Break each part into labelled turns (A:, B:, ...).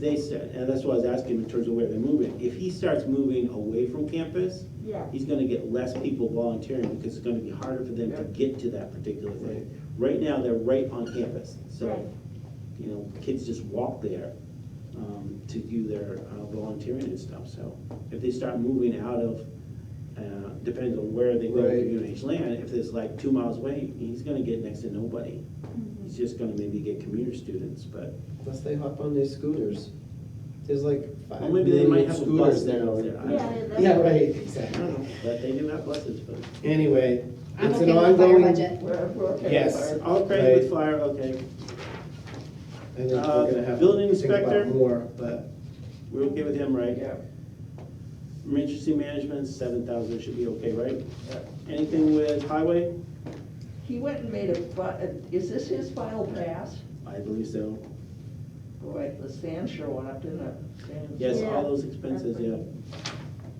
A: They said, and that's why I was asking him in terms of where they're moving. If he starts moving away from campus,
B: Yeah,
A: he's gonna get less people volunteering because it's gonna be harder for them to get to that particular thing. Right now, they're right on campus,
B: Right.
A: so, you know, kids just walk there um, to do their uh, volunteering and stuff, so. If they start moving out of, uh, depends on where they go
C: Right.
A: to UNH land, if it's like two miles away, he's gonna get next to nobody.
D: Mm-hmm.
A: He's just gonna maybe get commuter students, but,
C: Unless they hop on their scooters. There's like five
A: Well, maybe they might
C: million
A: have a
C: scooters
A: bus that
C: now.
A: goes there. I
B: yeah. that's-
C: Yeah, right,
A: I don't know,
C: exactly.
A: but they do have buses, but.
C: Anyway,
E: I'm
C: it's
E: okay
C: an
E: with the fire
C: ongoing. And
E: budget.
B: We're, we're okay. with
C: Yes.
B: our-
A: Okay, with fire, okay,
C: then we're
A: Uh,
C: gonna have
A: building
C: to think about
A: inspector?
C: more, but
A: we're okay with him, right?
F: Yeah,
A: Emergency management, seven thousand should be okay, right?
F: yeah.
A: Anything with highway?
B: He went and made a, fi- a- is this his final pass?
A: I believe so.
B: Boy, the sand sure went up, didn't it? Sand-
A: Yes,
B: Yeah.
A: all those expenses, yeah.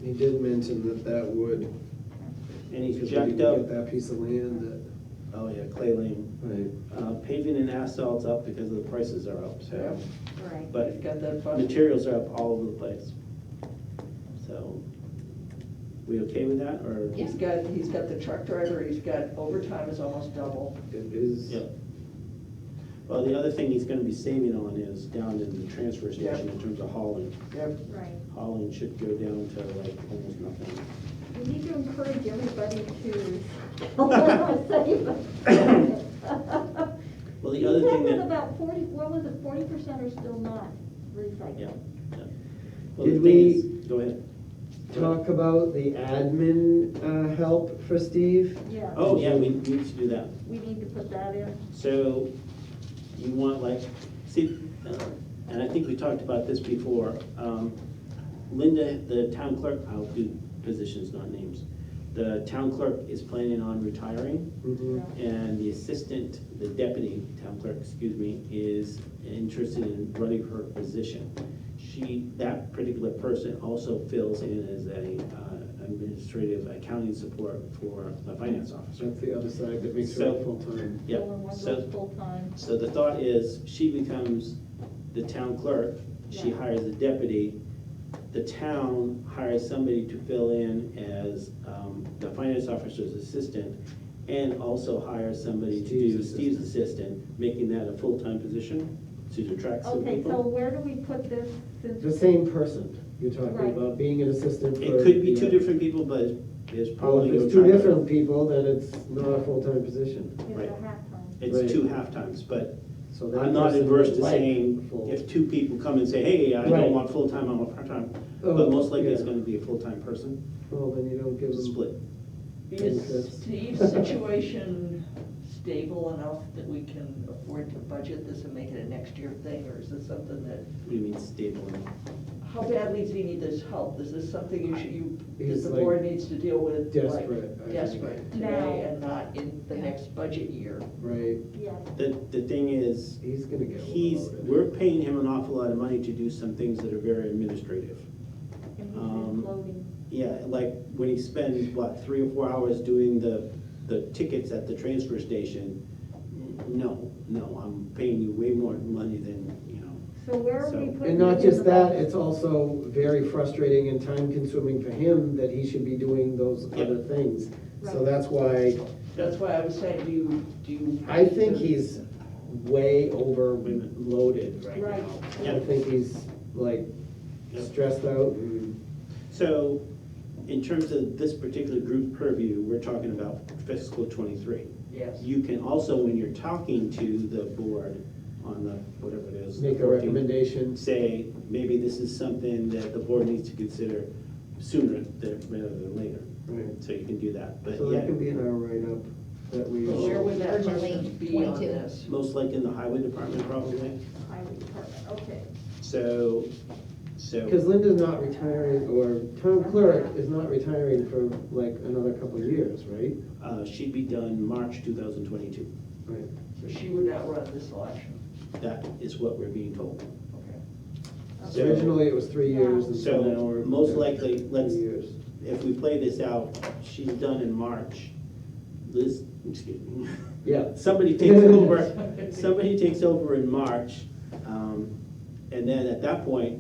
C: he did mention that that would,
A: And
C: because we
A: he's
C: didn't
A: jacked up,
C: get that piece of land that.
A: oh yeah, clay lane.
C: Right.
A: Uh, Paving and asphalt's up because the prices are up, so.
E: Right.
A: But
B: He's got that fund.
A: materials are up all over the place. So, we okay with that, or?
B: He's got, he's got the truck driver, he's got overtime is almost double.
C: It is.
A: Yep. Well, the other thing he's gonna be saving on is down in the transfer station in terms of hauling.
B: Yep.
E: Right.
A: Hauling should go down to like almost nothing.
D: We need to encourage everybody to.
A: Well, the other
D: He
A: thing
D: said that
A: that,
D: about forty, what was it, forty percent are still not
A: yeah.
D: recycled?
A: yeah. Well, the thing
C: Did we-
A: is, go ahead.
C: Talk about the admin uh, help for Steve.
D: Yeah.
A: Oh, yeah, we need to do that.
D: We need to put that in.
A: So you want like, see, uh, and I think we talked about this before. um, Linda, the town clerk, I'll do positions, not names. The town clerk is planning on retiring.
C: Mhm.
A: And the assistant, the deputy town clerk, excuse me, is interested in running her position. She, that particular person also fills in as a uh, administrative accounting support for the finance officer.
C: That's the other side that makes
A: So-
C: her full-time.
A: Yeah,
D: Well, and one
A: so,
D: goes full-time.
A: so the thought is, she becomes the town clerk, she
D: Yeah.
A: hires a deputy, the town hires somebody to fill in as um, the finance officer's assistant, and also hires somebody to do
C: Steve's
A: Steve's assistant, making that a full-time position to attract some
D: Okay, so
A: people.
D: where do we put this since?
C: The same person you're talking
D: Right.
C: about, being an assistant for.
A: It could be
C: the
A: two
C: other-
A: different people, but it's
C: Well,
A: probably.
C: if it's two different people, then it's not a full-time position,
D: Is
A: right.
D: it a half-time?
C: Right.
A: It's two half-times, but
C: so. that
A: I'm not
C: person
A: adverse
C: would
A: to
C: like
A: saying,
C: full-
A: if two people come and say, hey, I
C: Right.
A: don't want full-time, I want part-time,
C: Oh,
A: but most likely it's
C: yeah.
A: gonna be a full-time person,
C: Well, then you don't give them.
A: split.
B: Is
C: Yes.
B: Steve's situation stable enough that we can afford to budget this and make it a next year thing, or is this something that,
A: What do you mean stable?
B: how badly does he need this help? Is this something you should, you, that
C: He's
B: the
C: like
B: board needs to deal with? like,
C: desperate, I think.
B: Desperate
D: Now.
B: today and not in the next budget year.
C: Right,
D: Yeah,
A: The, the thing is,
C: he's gonna get.
A: he's,
C: overloaded.
A: we're paying him an awful lot of money to do some things that are very administrative.
D: and he's
A: Um,
D: been floating.
A: Yeah, like when he spends, what, three or four hours doing the, the tickets at the transfer station, no, no, I'm paying you way more money than, you know,
D: So where are
A: so-
D: we
A: And
D: putting?
C: And
D: it
C: not
D: in
C: just
D: the
C: that,
D: budget?
C: it's also very frustrating and time-consuming for him that he should be doing those
A: Yeah.
C: other things. So
D: Right.
C: that's why,
B: That's why I was saying, do you, do you?
C: I think he's way overloaded right
D: Right.
C: now.
A: Yeah.
C: I think he's like
A: Yeah.
C: stressed out and,
A: So, in terms of this particular group purview, we're talking about fiscal twenty-three.
B: Yes.
A: You can also, when you're talking to the board on the, whatever it is.
C: make a
A: 14,
C: recommendation.
A: Say, maybe this is something that the board needs to consider sooner than, rather than later.
C: Right.
A: So you can do that, but
C: So that
A: yeah,
C: can be in our write-up that we.
B: But Where would that person
E: Urgently,
B: be on
E: 22.
B: this?
A: most like in the highway department probably.
D: Highway department, okay.
A: So, so,
C: Because Linda's not retiring, or town clerk is not retiring for like another couple of years, right?
A: uh, she'd be done March two thousand twenty-two.
C: Right.
B: So she would not run this election.
A: That is what we're being told.
B: Okay.
A: So-
C: Originally, it was three years, and so
A: So,
C: now we're.
A: most likely,
C: Three
A: let's-
C: years.
A: if we play this out, she's done in March. Liz, excuse me.
C: Yeah.
A: Somebody takes over, somebody takes over in March. um, And then at that point,